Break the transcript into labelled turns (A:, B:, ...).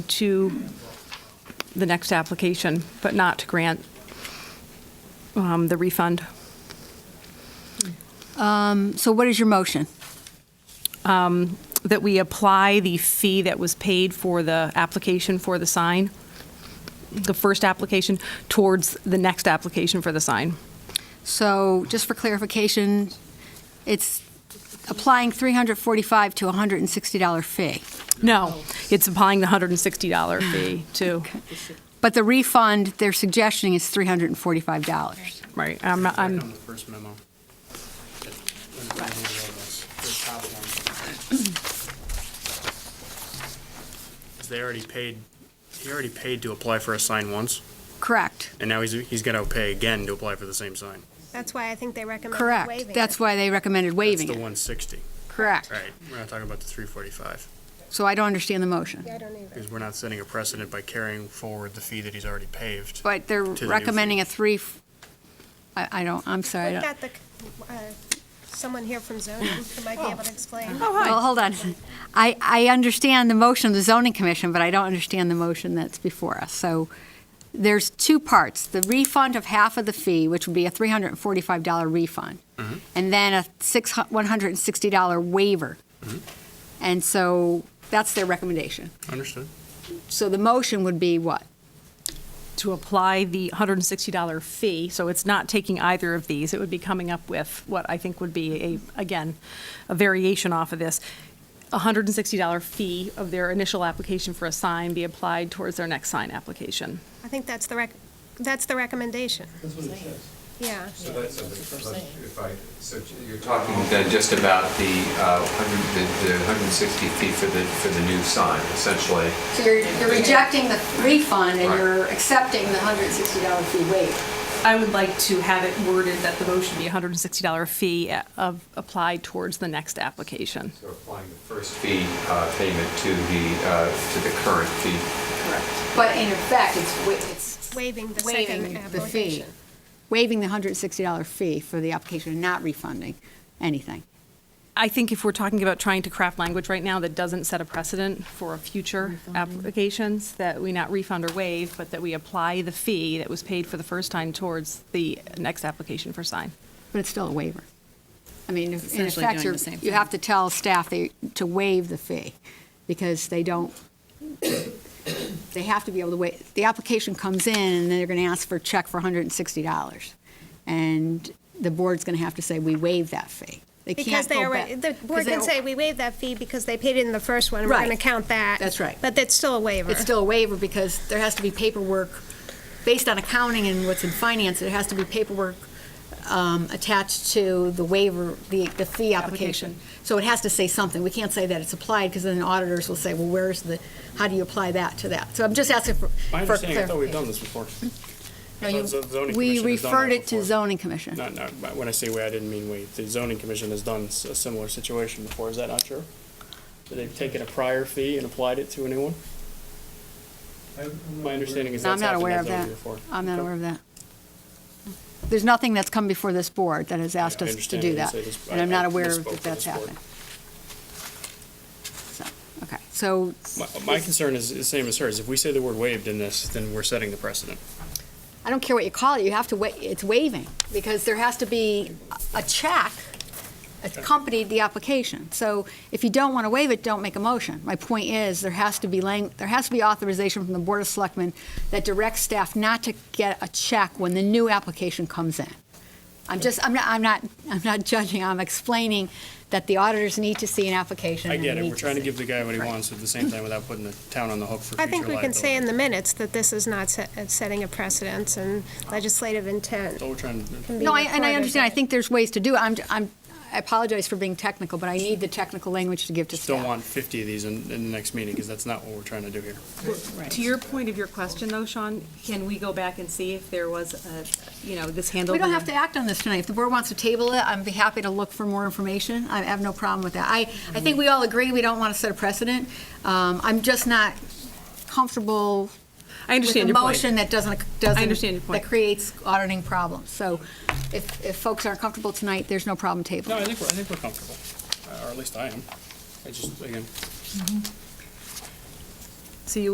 A: to the next application, but not to grant um, the refund.
B: So what is your motion?
A: That we apply the fee that was paid for the application for the sign, the first application, towards the next application for the sign.
B: So just for clarification, it's applying 345 to a $160 fee.
A: No, it's applying the $160 fee to,
B: But the refund they're suggesting is $345.
A: right, I'm, not-
C: Back on
A: I'm,
C: the first memo. The top one. 'Cause They already paid, he already paid to apply for a sign once,
B: Correct,
C: and now he's, he's gonna pay again to apply for the same sign.
D: That's why I think they recommend waiving
B: correct.
D: it.
B: That's why they recommended
C: That's
B: waiving
C: the
B: it.
C: one sixty,
B: Correct.
C: right? We're not talking about the three forty-five,
B: So I don't understand the motion.
D: Yeah, I don't either.
C: because we're not setting a precedent by carrying forward the fee that he's already paved.
B: But they're
C: new fee.
B: recommending a three, f- I I don't, I'm sorry. I
D: We've
B: don't-
D: got the, uh, someone here from zoning who might be able to explain.
B: Well, hold on. I, I understand the motion of the zoning commission, but I don't understand the motion that's before us. So there's two parts, the refund of half of the fee, which would be a $345 refund, and then a six hu- $160 waiver. And so that's their recommendation.
C: Understood.
B: So the motion would be what?
A: to apply the $160 fee, so it's not taking either of these. It would be coming up with what I think would be a, again, a variation off of this. $160 fee of their initial application for a sign be applied towards their next sign application.
D: I think that's the rec, that's the recommendation.
E: That's what it says.
D: Yeah,
F: So that's, a- if I, so you're talking then just about the uh, 100, the- the 160 feet for the, for the new sign, essentially.
B: So you're, you're rejecting the refund and
F: Right.
B: you're accepting the $160 fee waiver.
A: I would like to have it worded that the motion be $160 fee uh, of, applied towards the next application.
F: So applying the first fee uh, payment to the, uh, to the current fee.
B: Correct. But in effect, it's, wa- it's
D: waiving the
B: waiving
D: second
B: the fee,
D: application.
B: waiving the $160 fee for the application and not refunding anything.
A: I think if we're talking about trying to craft language right now that doesn't set a precedent for future applications, that we not refund or waive, but that we apply the fee that was paid for the first time towards the next application for sign.
B: But it's still a waiver. I mean, if- in
G: Essentially doing
B: effect,
G: the
B: you're-
G: same
B: you
G: thing.
B: have to tell staff they- to waive the fee because they don't, they have to be able to wait. The application comes in and they're going to ask for a check for $160. And the board's going to have to say, we waive that fee. They
D: Because
B: can't
D: they
B: go
D: already,
B: back-
D: the board
B: because they
D: can
B: don't-
D: say, we waive that fee because they paid it in the first one, and we're
B: Right.
D: gonna count that.
B: That's right.
D: But that's still a waiver.
B: It's still a waiver because there has to be paperwork, based on accounting and what's in finance, there has to be paperwork um, attached to the waiver, the, the fee application.
A: Application.
B: So it has to say something. We can't say that it's applied because then auditors will say, well, where's the, how do you apply that to that? So I'm just asking for.
C: My
B: for
C: understanding, I thought we've done this before.
B: No,
C: I
B: you-
C: thought the zoning
B: We
C: commission has done that
B: referred it to
C: before.
B: zoning commission.
C: Not, not, but when I say we, I didn't mean we. The zoning commission has done s- a similar situation before, is that not true? That they've taken a prior fee and applied it to a new one?
E: I- I'm
C: My understanding is
B: No, I'm
C: that's
B: not
C: happened
B: aware
C: that's
B: of that.
C: over before.
B: I'm not
C: Okay.
B: aware of that. There's nothing that's come before this board that has asked
C: I
B: us to
C: understand
B: do
C: what you
B: that.
C: say, just-
B: And
C: I-
B: I'm not
C: I
B: aware
C: misspoke
B: that
C: for
B: that's
C: this board.
B: happened. So, okay, so
C: My, my concern is the same as hers. If we say the word waived in this, then we're setting the precedent.
B: I don't care what you call it, you have to, wa- it's waiving, because there has to be a a check accompanied the application. So if you don't want to waive it, don't make a motion. My point is, there has to be, lang- there has to be authorization from the Board of Selectmen that directs staff not to get a check when the new application comes in. I'm just, I'm not, I'm not, I'm not judging, I'm explaining that the auditors need to see an application.
C: I
B: and
C: get it.
B: need
C: We're trying to
B: see-
C: give the guy what he
B: Right.
C: wants at the same time without putting the town on the hook for future
D: I
C: liability.
D: think we can say in the minutes that this is not se- uh, setting a precedence and legislative intent.
C: So we're trying to.
D: can be
B: No, I- and I
D: recorded.
B: understand, I think there's ways to do it. I'm, I'm, I apologize for being technical, but I need the technical language to give to
C: Just
B: staff.
C: don't want 50 of these in, in the next meeting, because that's not what we're trying to do here.
A: To your point of your question though, Sean, can we go back and see if there was a, you know, this handled?
B: We don't have to act on this tonight. If the board wants to table it, I'd be happy to look for more information. I have no problem with that. I, I think we all agree, we don't want to set a precedent. Um, I'm just not comfortable
A: I
B: with
A: understand
B: a
A: your point.
B: motion that doesn't, doesn't.
A: understand your point.
B: That creates auditing problems. So if, if folks aren't comfortable tonight, there's no problem
C: No, I
B: tabling.
C: think, we're- I think we're comfortable, Uh, or at least I am. I just, again,
A: So you